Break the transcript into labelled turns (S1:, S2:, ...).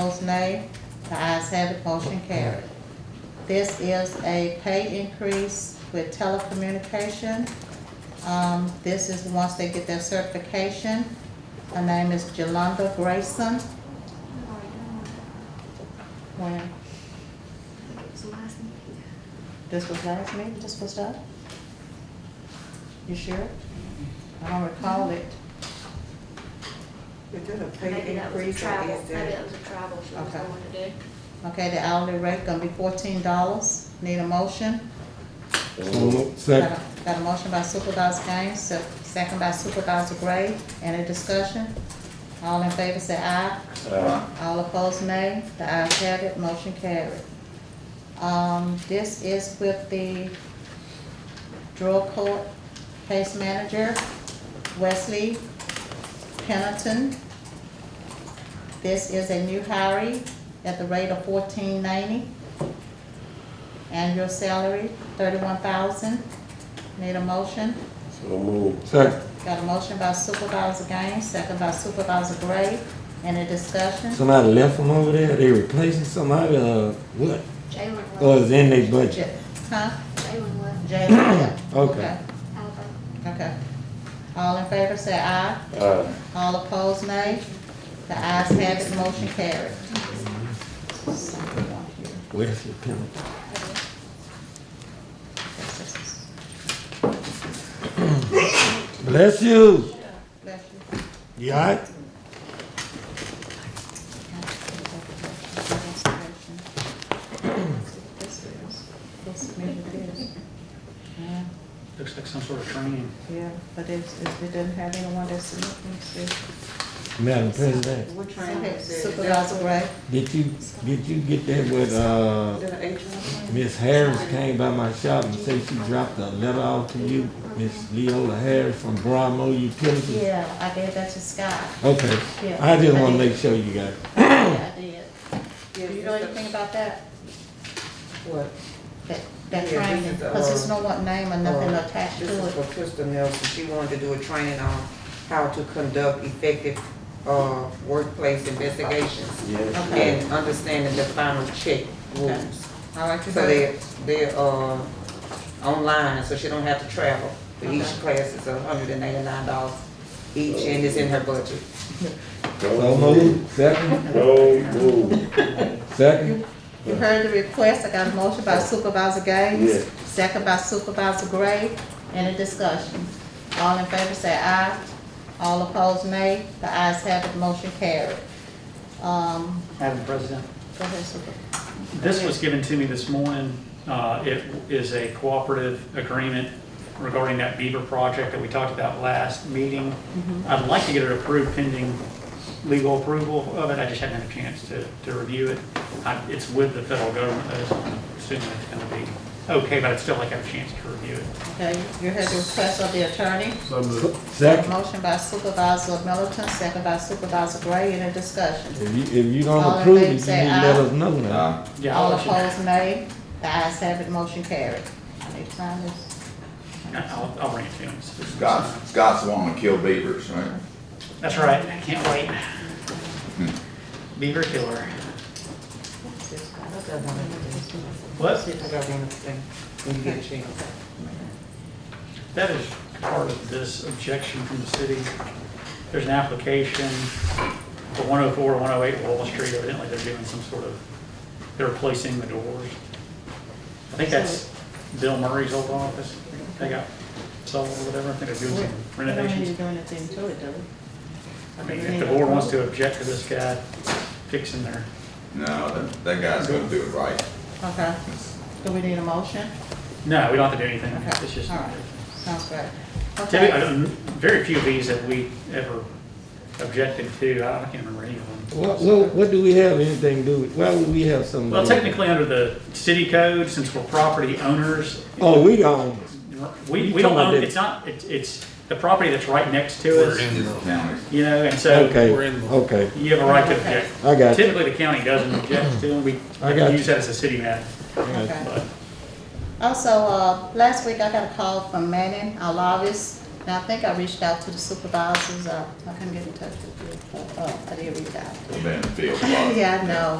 S1: Opposed, nay. The ayes have it, motion carried. This is a pay increase with telecommunication. Um, this is once they get their certification. Her name is Jolanda Grayson. When, this was last meeting, this was done? You sure? I don't recall it.
S2: Is it a pay
S3: Maybe that was a
S2: increase or
S3: travel,
S2: is
S3: maybe that
S2: it?
S3: was a travel she was
S1: Okay.
S3: going to do.
S1: Okay, the hourly rate gonna be fourteen dollars. Need a motion? Got
S4: Second.
S1: a- Got a motion by Supervisor Gaines, se- second by Supervisor Gray. Any discussion? All in favor say aye. All opposed, nay. The ayes have it, motion carried. Um, this is with the drug court case manager, Wesley Pennington. This is a new hire at the rate of fourteen ninety. Annual salary, thirty-one thousand. Need a motion?
S4: So moved. Second.
S1: Got a motion by Supervisor Gaines, second by Supervisor Gray. Any discussion?
S4: Somebody left them over there, they replacing somebody, uh, what?
S3: Jalen
S4: Or
S3: left,
S4: is in their budget?
S1: Ja- Huh?
S3: Jalen left,
S1: Jay Lynn?
S4: Okay.
S3: Alabama.
S1: Okay. All in favor say aye.
S4: Aye.
S1: All opposed, nay. The ayes have it, motion carried.
S4: Wesley Pendleton. Bless you.
S1: Bless you.
S4: You all right?
S1: This is- this maybe it is. Yeah,
S5: Looks like some sort of training.
S1: Yeah, but it's, it's- it doesn't have anyone that's submitting to.
S4: Madam President,
S2: What training is it?
S1: Supervisor Gray,
S4: did you, did you get that with, uh,
S2: Is it an H one?
S4: Miss Harris came by my shop and said she dropped a letter off to you, Miss Leola Harris from Bramo Utilities?
S1: yeah, I gave that to Scott.
S4: Okay,
S1: Yeah.
S4: I just wanna make sure you got it.
S1: Yeah, I did.
S2: Yes,
S1: Do you
S2: it's
S1: know
S2: the-
S1: anything about that?
S2: What?
S1: That, that
S2: Yeah, this
S1: training,
S2: is,
S1: because there's
S2: uh,
S1: no one name or nothing
S2: Uh,
S1: attached to
S2: This is
S1: it.
S2: for Crystal Nelson. She wanted to do a training on how to conduct effective, uh, workplace investigations
S1: Okay,
S2: and understanding the final check rules.
S1: all right, you
S2: So
S1: good?
S2: they, they're, uh, online, so she don't have to travel. But Each
S1: Okay.
S2: class is hundred and eighty-nine dollars each and it's in her budget.
S4: So moved, second,
S6: So moved.
S4: second,
S1: You heard the request, I got a motion by Supervisor Gaines,
S6: Yes.
S1: second by Supervisor Gray, any discussion? All in favor say aye, all opposed nay, the ayes have it, motion carried. Um,
S5: Madam President,
S1: go ahead, Super.
S5: this was given to me this morning. Uh, It is a cooperative agreement regarding that Beaver project that we talked about last meeting. I'd like to get it approved pending legal approval of it. I just haven't had a chance to, to review it. I- It's with the federal government, though, so I'm assuming it's going to be okay, but I'd still like to have a chance to review it.
S1: Okay, you heard the request of the attorney?
S6: So moved.
S4: second.
S1: Motion by Supervisor Middleton, second by Supervisor Gray, any discussion?
S4: If you, if you
S1: All
S4: don't
S1: in
S4: approve it,
S1: favor
S4: you need to
S1: say
S4: let
S1: aye.
S4: us know
S7: Uh,
S4: now.
S5: Yeah, I'll
S1: All
S5: let you-
S1: opposed, nay. The ayes have it, motion carried. I need to sign this.
S5: I'll, I'll bring it to him.
S7: Scott, Scott's the one to kill beavers, right?
S5: That's right. I can't wait.
S6: Hmm.
S5: Beaver killer. What?
S2: I got one other thing, when you get a chance.
S5: That is part of this objection from the city. There's an application for 104, 108 Wall Street, evidently they're doing some sort of, they're replacing the doors. I think that's Bill Murray's old office, they got sold or whatever, I think they're doing some renovations.
S1: do anything to it, do
S5: I mean, if the board wants to object to this guy fixing their,
S7: No, that, that guy's gonna do it right.
S1: Okay. Do we need a motion?
S5: no, we don't have to do anything,
S1: Okay.
S5: it's just.
S1: All right. Sounds great.
S5: Typically,
S1: Okay.
S5: I don't- very few of these have we ever objected to, I can't remember any of them.
S4: What, what, what do we have anything to do with, why would we have some?
S5: Well, technically, under the city code, since we're property owners,
S4: Oh, we don't,
S5: we,
S4: You
S5: we don't
S4: talking about
S5: own,
S4: the-
S5: it's not, it's, it's the property that's right next to us,
S7: It's the county.
S5: you know, and so
S4: okay, okay,
S5: you have a right to object.
S4: I got you.
S5: Typically, the county doesn't object to them, we
S4: I got
S5: use that as a city matter,
S1: Okay.
S5: but
S1: Also, uh, last week I got a call from Manning, our lobbyist, And I think I reached out to the supervisors, uh, I couldn't get in touch with you, but, uh, I did reach out.
S7: Been in the field a lot.
S1: Yeah, I know,